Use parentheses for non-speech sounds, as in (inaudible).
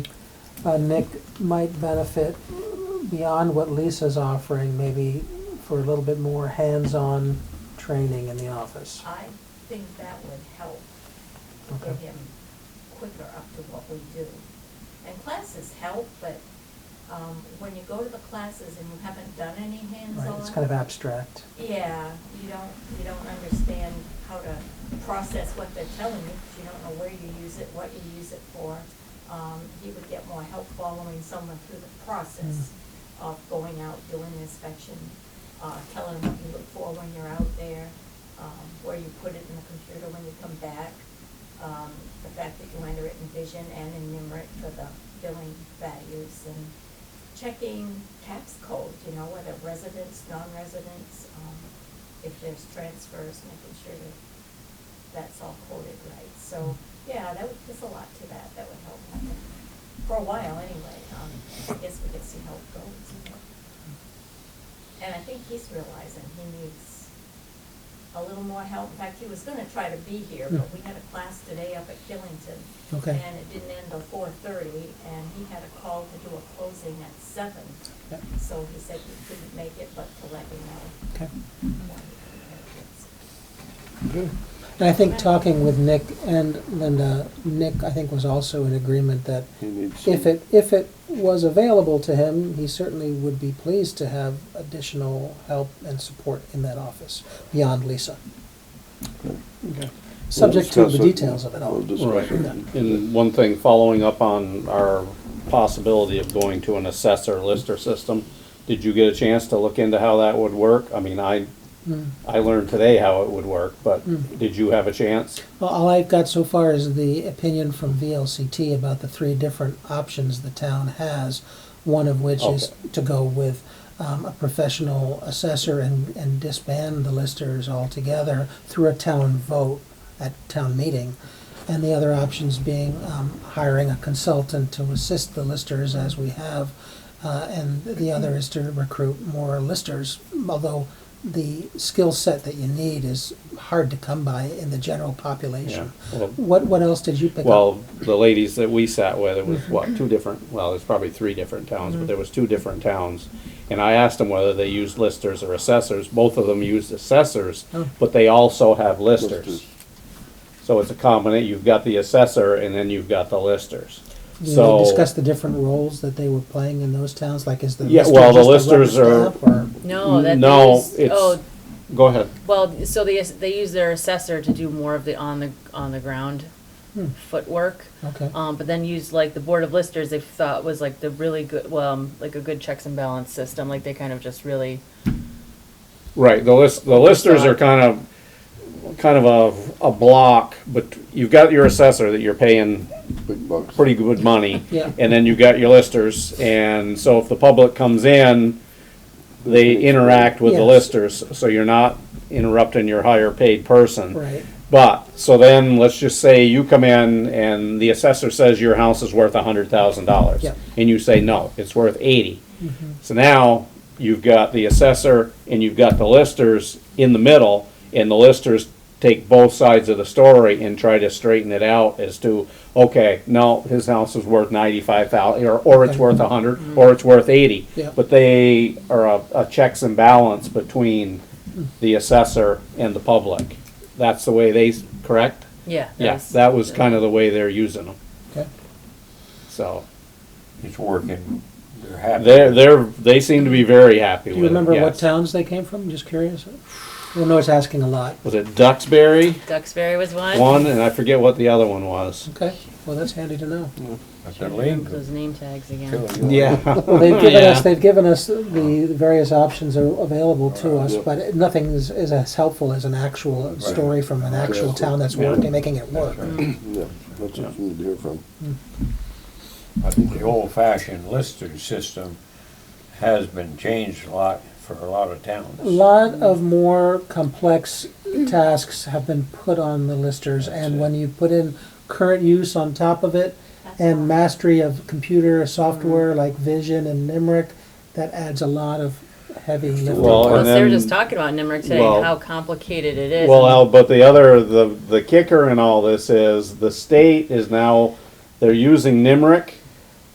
uh, Nick might benefit beyond what Lisa's offering, maybe for a little bit more hands-on training in the office. I think that would help to Okay. get him quicker up to what we do. And classes help, but um, when you go to the classes and you haven't done any Right, hands-on. it's kind of abstract. Yeah, you don't, you don't understand how to process what they're telling you, 'cause you don't know where you use it, what you use it for. Um, He would get more help following someone through the process of going out, doing inspection, uh, telling them what you look for when you're out there, um, where you put it in the computer when you come back, um, the fact that you enter it in vision and in numeric for the billing values and checking tax code, you know, whether residents, non-residents, um, if there's transfers, making sure that that's all quoted right. So, yeah, that would, there's a lot to that, that would help, I think, for a while anyway. Um, I guess we could see how it goes. And I think he's realizing he needs a little more help. In fact, he was gonna try to be here, but we had a class today up at Killington. Okay. And it didn't end till four thirty, and he had a call to do a closing at seven. Yeah, So he said he couldn't make it, but to let me know. Okay. when he could make it. And I think talking with Nick and Linda, Nick, I think, was also in agreement that He needs if some- it, if it was available to him, he certainly would be pleased to have additional help and support in that office beyond Lisa. Okay. Subject to We'll the discuss it. details of it all. We'll discuss Right, it. and one thing, following up on our possibility of going to an assessor lister system, did you get a chance to look into how that would work? I mean, I, Mm. I learned today how it would work, but Mm. did you have a chance? Well, all I've got so far is the opinion from VLCT about the three different options the town has, one of which is Okay. to go with um, a professional assessor and, and disband the listers altogether through a town vote at town meeting. And the other options being um, hiring a consultant to assist the listers as we have. Uh, and the other is to recruit more listers, although the skill set that you need is hard to come by in the general population. Yeah, well- What, what else did you pick up? Well, the ladies that we sat with, it was Mm-hmm. what, two different, well, there's probably three different towns, but there was two different towns. And I asked them whether they used listers or assessors. Both of them used assessors, Oh. but they also have Listers. listers. So it's a combinate, you've got the assessor and then you've got the listers. Did they So, discuss the different roles that they were playing in those towns? Like, is the Yeah, lister well, the just a rubber listers are- stamp, or- No, that No, they use, it's- oh, go ahead. well, so they, they use their assessor to do more of the on the, on the ground Hmm. footwork. Okay. Um, but then use like the board of listers, they thought was like the really good, well, um, like a good checks and balance system, like they kind of just really, Right, the list, the listers are kind of, kind of a, a block, but you've got your assessor that you're paying Big bucks. pretty good money. (laughs) Yeah. And then you've got your listers, and so if the public comes in, they interact with the Yes. listers, so you're not interrupting your higher paid person. Right. But, so then, let's just say you come in and the assessor says your house is worth a hundred thousand dollars. Yeah. And you say, no, it's worth eighty. So now, you've got the assessor and you've got the listers in the middle, and the listers take both sides of the story and try to straighten it out as to, okay, no, his house is worth ninety-five thousand, or, or it's Okay. worth a hundred, or it's worth eighty. Mm. Yeah. But they are a, a checks and balance between the assessor and the public. That's the way they, s- correct? yeah. Yes, that was kind of the way they're using them, Okay. so. It's working. They're happy. They're, they're, they seem to be very happy Do with it, you remember what yes. towns they came from? Just curious. Well, no, it's asking a lot. Was it Duxbury? Duxbury was one. one, and I forget what the other one was. Okay. Well, that's handy to know. That's their Those name tags again. link. (laughs) Well, they've given Hmm. Yeah. us, they've given us the various options are available to us, Yep. but nothing is, is as helpful as an actual story from an actual town that's Yeah. working, making it work. Yeah, that's what you need to hear from. I think the old-fashioned lister system has been changed a lot for a lot of towns. A lot of more complex tasks have been put on the listers, and when you put in current use on top of it, That's and all. mastery of computer software like Vision and Nimerick, that adds a lot of heavy lifting. Well, Plus, and they were then- just talking about Nimerick today, well- and how complicated it is. Well, and- Al, but the other, the, the kicker in all this is the state is now, they're using NIMRIC